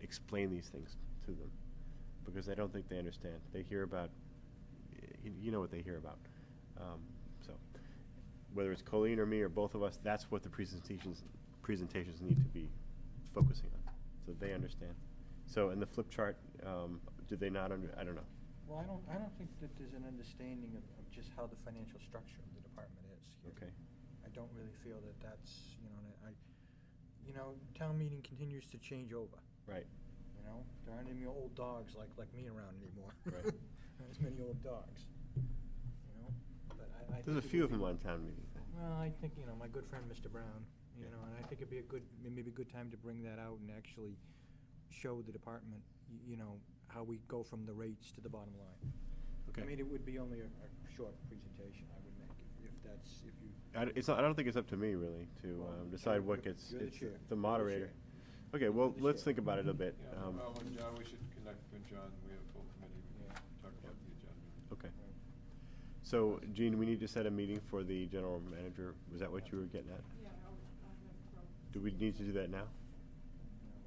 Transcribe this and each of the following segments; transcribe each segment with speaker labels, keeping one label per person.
Speaker 1: explain these things to them because I don't think they understand. They hear about, you, you know what they hear about. Um, so whether it's Colleen or me or both of us, that's what the presentations presentations need to be focusing on, so they understand. So in the flip chart, um, did they not under? I don't know.
Speaker 2: Well, I don't, I don't think that there's an understanding of, of just how the financial structure of the department is here.
Speaker 1: Okay.
Speaker 2: I don't really feel that that's, you know, and I, you know, town meeting continues to change over,
Speaker 1: Right.
Speaker 2: you know? There aren't any old dogs like, like me around anymore.
Speaker 1: Right.
Speaker 2: Not as many old dogs, you know? But I, I.
Speaker 1: There's a
Speaker 2: think it
Speaker 1: few of
Speaker 2: would be-
Speaker 1: them on town meeting.
Speaker 2: Well, I think, you know, my good friend, Mr. Brown, you
Speaker 1: Yeah.
Speaker 2: know, and I think it'd be a good, may- maybe a good time to bring that out and actually show the department, y- you know, how we go from the rates to the bottom line. I mean, it would be only a, a short presentation I would make, if- if that's, if you.
Speaker 1: I, d- it's not, I don't think it's up to me really to
Speaker 2: Well,
Speaker 1: um,
Speaker 2: you're-
Speaker 1: decide what
Speaker 2: you're-
Speaker 1: gets.
Speaker 2: you're the
Speaker 1: it's
Speaker 2: chair. You're the
Speaker 1: The moderator.
Speaker 2: chair.
Speaker 1: Okay, well,
Speaker 2: You're the
Speaker 1: let's
Speaker 2: chair.
Speaker 1: think about it a bit.
Speaker 3: Yeah,
Speaker 1: Um,
Speaker 3: well, when John, we should connect with John, we have full committee, we can talk about the agenda.
Speaker 1: Okay. So Gene, we need to set a meeting for the general manager. Was that what you were getting at?
Speaker 4: Yeah, I'll, I'll have it from,
Speaker 1: Do we need to do that now?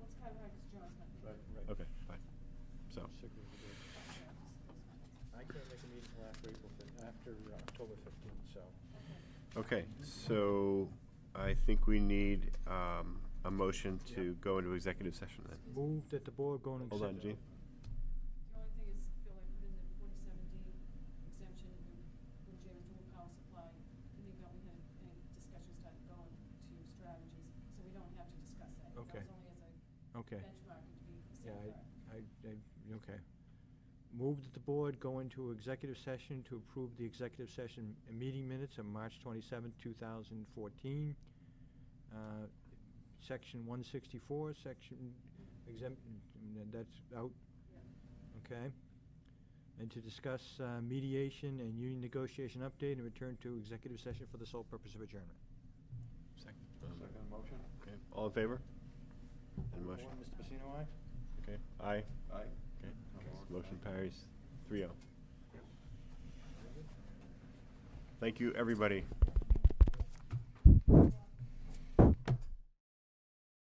Speaker 4: let's kind of, because John's not here.
Speaker 2: Right, right.
Speaker 1: Okay, fine. So,
Speaker 2: Sick of the day.
Speaker 4: Yeah, just- that's
Speaker 2: I can't make a meeting till after April fif, after uh, October fifteenth, so.
Speaker 4: fine. Okay.
Speaker 1: okay, so I think we need um, a motion to go into executive session then.
Speaker 2: Move that the board go and.
Speaker 1: Hold on, Gene.
Speaker 4: The only thing is, Phil, I put in the forty-seven D exemption when, when James Tool Power Supply, I think that we had any discussion started going to strategies, so we don't have to discuss that. That
Speaker 2: Okay.
Speaker 4: was only as a
Speaker 2: Okay.
Speaker 4: benchmark to be
Speaker 2: Yeah,
Speaker 4: safeguard.
Speaker 2: I, I, I, okay. Move that the board go into executive session to approve the executive session meeting minutes of March twenty-seventh, two thousand fourteen. Uh, Section one sixty-four, section exempt, n- that's out, okay? And to discuss uh, mediation and union negotiation update and return to executive session for the sole purpose of adjournment.
Speaker 1: Second.
Speaker 3: Second motion?
Speaker 1: Um, Okay, all in favor? And motion,
Speaker 2: Mr. Pacino, aye?
Speaker 1: okay, aye?
Speaker 3: Aye?
Speaker 1: Okay,
Speaker 3: Okay.
Speaker 1: motion parries, three oh. Thank you, everybody.